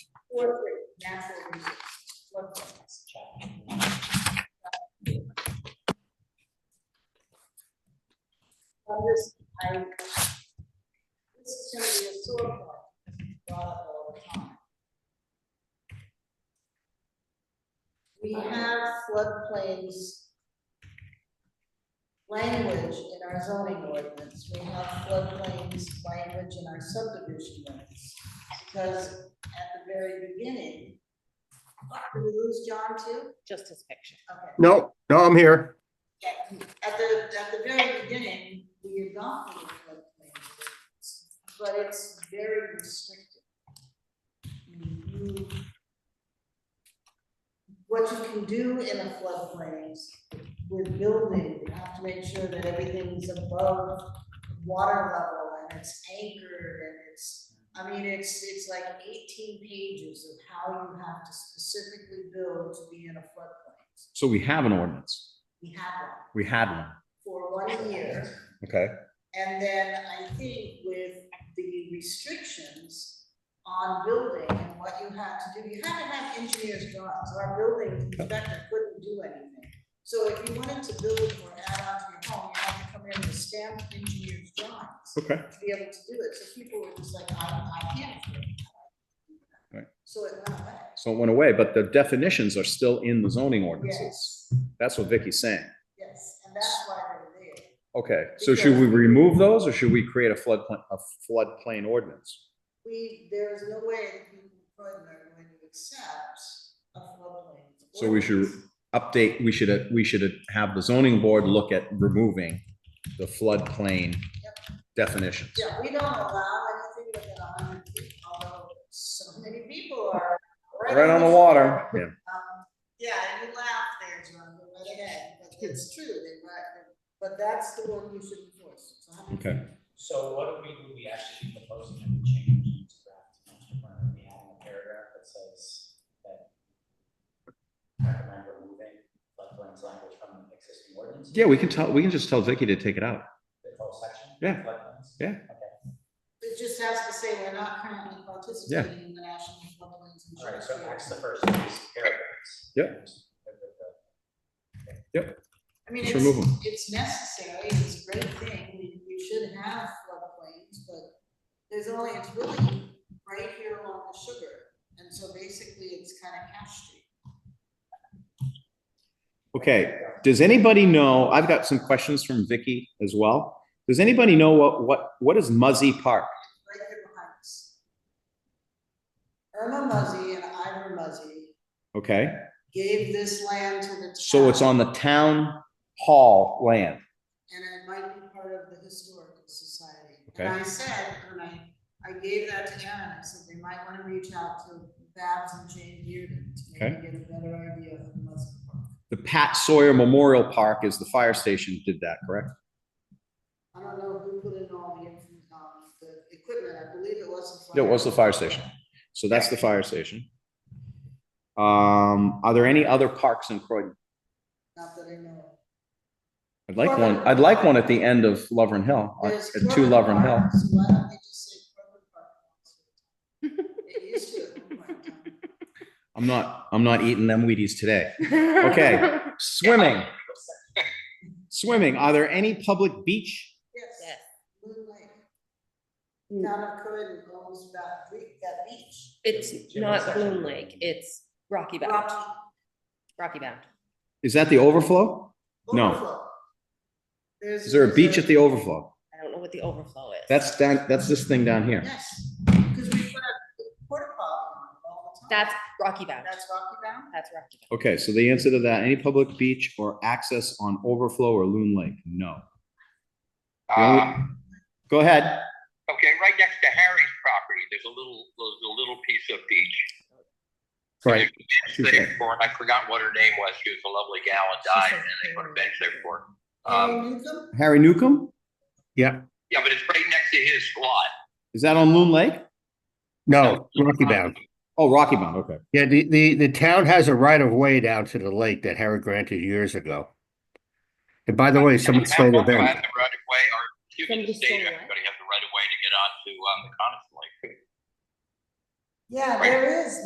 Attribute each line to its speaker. Speaker 1: Four, three, natural resources. Look for this. On this, I, this is gonna be a sore point, brought up all the time. We have floodplains language in our zoning ordinance, we have floodplains language in our subdivision ordinance. Because at the very beginning, did we lose John too?
Speaker 2: just his picture.
Speaker 1: Okay.
Speaker 3: No, no, I'm here.
Speaker 1: At the, at the very beginning, we adopted a floodplain ordinance, but it's very restrictive. You- What you can do in a floodplain is with building, you have to make sure that everything's above water level and it's anchored and it's, I mean, it's, it's like eighteen pages of how you have to specifically build to be in a floodplain.
Speaker 4: So we have an ordinance.
Speaker 1: We have one
Speaker 4: We had one.
Speaker 1: for one year.
Speaker 4: Okay.
Speaker 1: And then I think with the restrictions on building and what you had to do, you had to have engineers draw, so our building inspector couldn't do anything. So if you wanted to build or add on to your home, you had to come in with stamped engineer's drawings
Speaker 4: Okay.
Speaker 1: to be able to do it, so people were just like, I, I can't. afford it."
Speaker 4: Right.
Speaker 1: So it went away.
Speaker 4: So it went away, but the definitions are still in the zoning ordinances. That's what Vicky's saying.
Speaker 1: yes, and that's why they're there.
Speaker 4: Okay, so should we remove those or should we create a floodplain, a floodplain ordinance?
Speaker 1: We, there is no way that people in Croydon are going to accept a floodplain.
Speaker 4: So we should-
Speaker 1: ordinance.
Speaker 4: Update, we should, we should have the zoning board look at removing the floodplain definitions.
Speaker 1: Yeah, we don't allow anything within a hundred feet, although so many people are.
Speaker 4: Right on the water. Yeah.
Speaker 1: Um, Yeah, and you laugh there, John, but right ahead, but it's true, they, right, but that's the one you should enforce. It's a hundred
Speaker 4: Okay.
Speaker 1: feet.
Speaker 5: So what would we, would we actually be proposing that we change to draft master plan? Are we adding a paragraph that says that recommend removing floodplains language from the existing ordinance?
Speaker 4: Yeah, we can tell, we can just tell Vicky to take it out.
Speaker 5: The whole section?
Speaker 4: Yeah.
Speaker 5: Floodplains?
Speaker 4: Yeah.
Speaker 5: Okay,
Speaker 1: It just has to say we're not currently participating in the national floodplains
Speaker 5: all right,
Speaker 1: insurance.
Speaker 5: so that's the first of these paragraphs.
Speaker 4: Yeah.
Speaker 1: I mean, it's,
Speaker 4: Let's remove 'em.
Speaker 1: it's necessary, it's a great thing, we, we should have floodplains, but there's only, it's really right here along the sugar, and so basically it's kind of cash street.
Speaker 4: Okay, does anybody know, I've got some questions from Vicky as well. Does anybody know what, what, what is Muzzy Park?
Speaker 1: right here behind us. Irma Muzzy and Ivor Muzzy
Speaker 4: Okay,
Speaker 1: gave this land to the
Speaker 4: so it's
Speaker 1: town,
Speaker 4: on the town hall land.
Speaker 1: And it might be part of the historical society.
Speaker 4: Okay.
Speaker 1: And I said, when I, I gave that to Aaron, I said, they might want to reach out to Babs and Jane Dearden to maybe get a better idea of Muzzy Park.
Speaker 4: The Pat Sawyer Memorial Park is the fire station did that, correct?
Speaker 1: I don't know who put in all the, infant- um, the equipment, I believe it was. the
Speaker 4: Yeah, It was the fire station. So that's the fire station. Um, are there any other parks in Croydon?
Speaker 1: Not that I
Speaker 4: Uh,
Speaker 1: know. of.
Speaker 4: I'd like one, I'd like one at the end of Lovern Hill, uh,
Speaker 1: There's
Speaker 4: at two
Speaker 1: Corbin
Speaker 4: Lovern Hill.
Speaker 1: Park, so Why don't they just say Corbin Park? It used to at one point in time.
Speaker 4: I'm not, I'm not eating them Wheaties today. Okay. Swimming. Swimming. Are there any public beach?
Speaker 1: Yes,
Speaker 2: Yes.
Speaker 1: Loon Lake,
Speaker 2: Mm.
Speaker 1: town of Corinne owns that creek, that beach.
Speaker 2: It's not Bloom Lake, it's Rocky Bound,
Speaker 1: Rocky
Speaker 2: Rocky Bound.
Speaker 4: Is that the overflow? No.
Speaker 1: Overflow. There's-
Speaker 4: Is there a
Speaker 1: there's
Speaker 4: beach at the overflow?
Speaker 2: I don't know what the overflow is.
Speaker 4: That's that, that's this thing down here.
Speaker 1: Yes, because we put a porta potty on it all the time.
Speaker 2: That's Rocky Bound.
Speaker 1: That's Rocky Bound?
Speaker 2: That's Rocky Bound.
Speaker 4: Okay, so the answer to that, any public beach or access on overflow or Loon Lake? No. The only-
Speaker 6: Um,
Speaker 4: Go ahead.
Speaker 6: okay, right next to Harry's property, there's a little, there's a little piece of beach.
Speaker 4: Right.
Speaker 6: There's a bench there for, and I forgot what her name was. She was a lovely gal and died, and they put a bench there for. her. Um,
Speaker 1: Harry Newcomb?
Speaker 4: Harry Newcomb?
Speaker 6: yeah, but it's right next to his lot.
Speaker 4: Is that on Loon Lake?
Speaker 3: No, Rocky
Speaker 6: um,
Speaker 3: Bound.
Speaker 4: Oh, Rocky Mountain, okay.
Speaker 3: Yeah, the, the, the town has a right of way down to the lake that Harry granted years ago. And by the way, someone stole the
Speaker 6: Have the Right of way,
Speaker 3: bench.
Speaker 6: or you can
Speaker 2: Somebody
Speaker 6: state
Speaker 2: stole what?
Speaker 6: everybody has the right of way to get onto, um, the Coniston Lake.
Speaker 1: Yeah, there is,